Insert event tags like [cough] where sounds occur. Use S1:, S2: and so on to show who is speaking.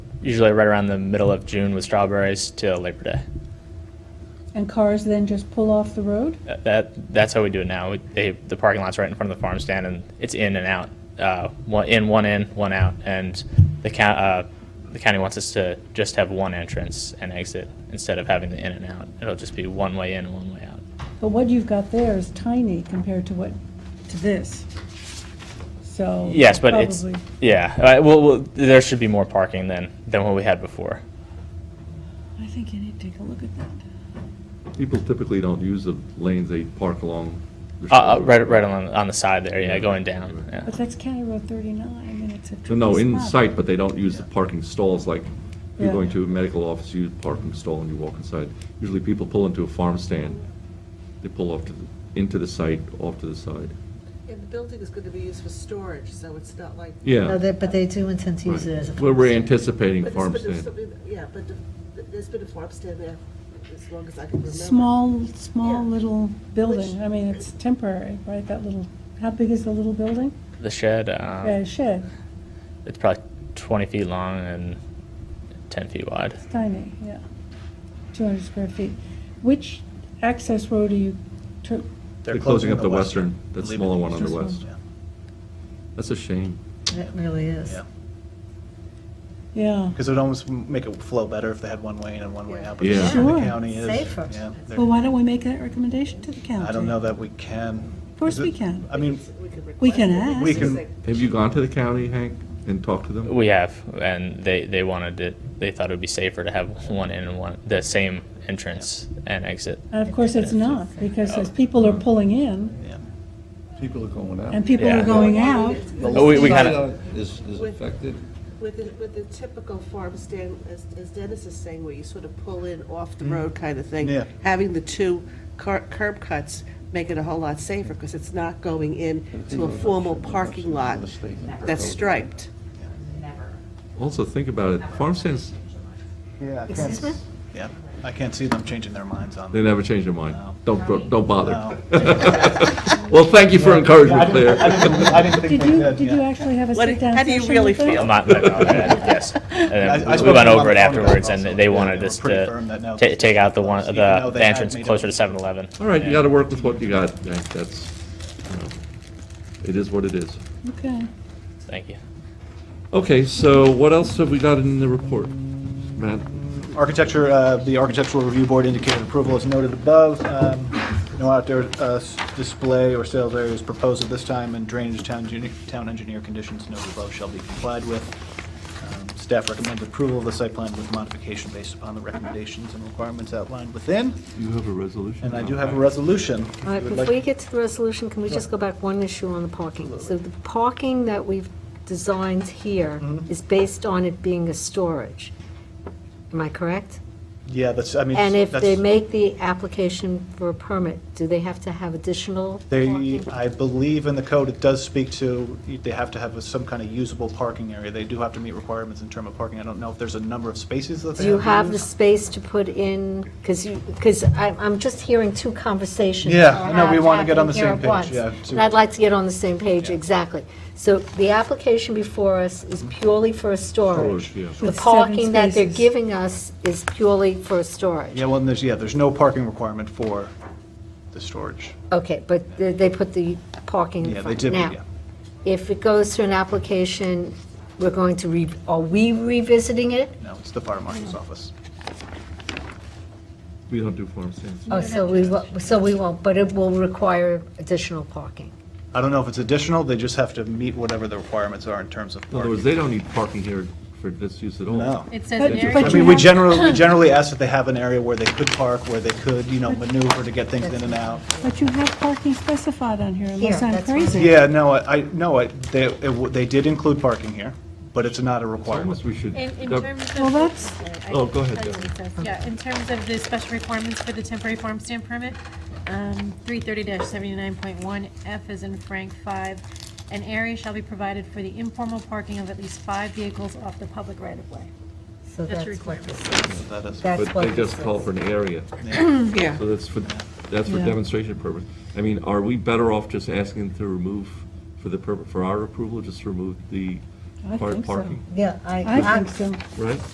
S1: usually right around the middle of June with strawberries till Labor Day.
S2: And cars then just pull off the road?
S1: That- That that's how we do it now. We, they, the parking lot's right in front of the farm stand, and it's in and out, uh, one in, one in, one out, and the county uh, the county wants us to just have one entrance and exit instead of having the in and out. It'll just be one way in, one way out.
S2: But what you've got there is tiny compared to what, to this. So.
S1: Yes, but it's
S2: probably-
S1: yeah. All right, well, well, there should be more parking than than what we had before.
S3: I think you need to take a look at that.
S4: People typically don't use the lanes they park along. the
S1: Uh, uh,
S4: shoulder.
S1: right, right on on the side there. Yeah, going down. Yeah.
S3: But that's County Road 39, and it's a tricky
S4: No, in
S3: spot.
S4: sight, but they don't use the parking stalls like you're
S2: Yeah.
S4: going to a medical office, you parking stall and you walk inside. Usually people pull into a farm stand, they pull off to, the- into the site, off to the side.
S5: And the building is going to be used for storage, so it's not like.
S6: No,
S4: Yeah.
S6: they- But they do intend to use it as a.
S4: Well, we're anticipating
S5: But there's
S4: farm
S5: been a-
S4: stand.
S5: something- Yeah, but the- there's been a farm stand there as long as I can remember.
S2: Small, small
S5: Yeah.
S2: little building.
S5: Which-
S2: I mean, it's temporary, right? That little, how big is the little building?
S1: The shed. Um,
S2: Uh, shed,
S1: It's probably 20 feet long and 10 feet wide.
S2: it's tiny, yeah. Two hundred square feet. Which access road are you, tur-
S4: They're closing up the western, that smaller one on the west. That's a shame.
S6: It really is.
S7: Yeah,
S2: yeah.
S7: because it would almost m- make it flow better if they had one way in and one way out. but
S4: Yeah.
S7: that's where
S2: Sure.
S7: The county is.
S6: Safer.
S7: yeah, they're-
S3: Well, why don't we make that recommendation to the county?
S7: I don't know that we can.
S3: Of course
S7: Is it-
S3: we can.
S7: I mean,
S3: We can ask.
S7: we can,
S4: Have you gone to the county, Hank, and talked to them?
S1: We have, and they, they wanted it, they thought it would be safer to have [laughs] one in and one, the same entrance and exit.
S2: And of course, it's not, because as people are pulling in
S7: yeah.
S8: People are going out.
S2: and people
S1: Yeah.
S2: are going out,
S8: The
S1: Oh, we- we
S8: left
S1: kinda-
S8: side of it Is, is affected.
S5: With the, with the typical farm stand, as as Dennis is saying, where you sort of pull in off the road kind of thing.
S7: Mm. Yeah.
S5: Having the two cur- curb cuts make it a whole lot safer because it's not going in to a formal parking lot that's striped.
S4: Also, think about it, farm stands,
S7: Yeah. Excuse me? Yeah, I can't see them changing their minds on.
S4: they never change their mind. Don't, bro- don't bother.
S7: No.
S4: [laughs] Well, thank you for
S7: Yeah, I
S4: encouragement,
S7: didn't- I
S4: Claire.
S7: didn't- I didn't think
S2: did
S7: they
S2: you,
S7: did,
S2: did you
S7: yeah.
S2: actually have a
S5: What-
S2: sit-down
S5: how
S2: session
S5: do you
S2: with
S5: really
S2: them?
S5: feel?
S1: I'm not, but, uh,
S7: [laughs]
S1: yes. And
S7: I-
S1: then
S7: I
S1: we
S7: spoke
S1: went
S7: to them on
S1: over it
S7: the phone about
S1: afterwards,
S7: it
S1: and
S7: also,
S1: they
S7: yeah,
S1: wanted
S7: they were
S1: us
S7: pretty firm
S1: to
S7: that no,
S1: ta- take out the one,
S7: closed, even
S1: the
S7: though they
S1: the
S7: had
S1: entrance
S7: made it-
S1: closer to 7-Eleven.
S4: [laughs] All right, you
S1: And-
S4: gotta work with what you got, Hank, that's, you know, it is what it is.
S2: Okay.
S1: Thank you.
S4: Okay, so what else have we got in the report, Matt?
S7: Architecture, uh, the architectural review board indicated approval as noted above. Um, No outdoor uh, s- display or sales areas proposed at this time, and drainage town engineer- town engineer conditions noted above shall be complied with. Um, Staff recommends approval of the site plan with modification based upon the recommendations and requirements outlined within.
S4: You have a resolution?
S7: And I do have a resolution. if you
S6: All right,
S7: would
S6: before
S7: like-
S6: we get to the resolution, can we just go back one issue on the parking? So the parking that we've designed here
S7: Mm-hmm.
S6: is based on it being a storage. Am I correct?
S7: Yeah, that's, I mean.
S6: And if they
S7: that's-
S6: make the application for a permit, do they have to have additional
S7: They,
S6: parking?
S7: I believe in the code, it does speak to, they have to have some kind of usable parking area. They do have to meet requirements in term of parking. I don't know if there's a number of spaces that they
S6: Do you
S7: have
S6: have
S7: to
S6: the
S7: use.
S6: space to put in, because you, because I'm, I'm just hearing two conversations.
S7: Yeah,
S6: that
S7: I know, we
S6: have
S7: wanna get on the
S6: happening
S7: same
S6: here at
S7: page,
S6: once.
S7: yeah, to-
S6: And I'd like to get on the same page, exactly. So the application before us is purely for a storage.
S4: Storage, yeah.
S6: The
S2: With seven
S6: parking that they're
S2: spaces.
S6: giving us is purely for storage.
S7: Yeah, well, and there's, yeah, there's no parking requirement for the storage.
S6: Okay, but they, they put the parking
S7: Yeah,
S6: in
S7: they
S6: front.
S7: did,
S6: Now,
S7: yeah.
S6: if it goes through an application, we're going to re, are we revisiting it?
S7: No, it's the fire marshal's office.
S4: We don't do farm stands.
S6: Oh, so we, wo- so we won't, but it will require additional parking.
S7: I don't know if it's additional, they just have to meet whatever the requirements are in terms of
S4: In other words,
S7: parking.
S4: they don't need parking here for this use at all.
S7: No.
S9: It says
S2: But-
S9: an area
S2: but
S7: I
S2: you
S7: mean, we
S2: have-
S7: generally, we generally ask that they have an area where they could park, where they could, you know, maneuver to get things in and out.
S2: But you have parking specified on here, unless
S6: Here,
S2: I'm
S6: that's fine.
S2: crazy.
S7: Yeah, no, I, I- no, I- they, it w- they did include parking here, but it's not a requirement.
S4: Almost we should.
S9: In, in
S4: Deb-
S9: terms of.
S2: Well, that's-
S9: I
S4: Oh,
S9: can
S4: go ahead,
S9: tell you
S4: Deb.
S9: what it says. Yeah, in terms of the special requirements for the temporary farm stand permit, um, three thirty seventy-nine point one, F is in Frank five. An area shall be provided for the informal parking of at least five vehicles off the public right of way.
S6: So
S9: That's
S6: that's
S9: a
S6: what
S9: requirement.
S7: That is.
S6: That's
S4: But
S6: what
S4: they
S6: this
S4: just call
S6: is.
S4: for an area.
S5: Yeah.
S4: So that's for, that's for
S2: Yeah.
S4: demonstration purpose. I mean, are we better off just asking them to remove, for the, purpo- for our approval, just remove the
S2: I
S4: part
S2: think so.
S4: parking,
S6: Yeah, I.
S2: I think so.
S4: right?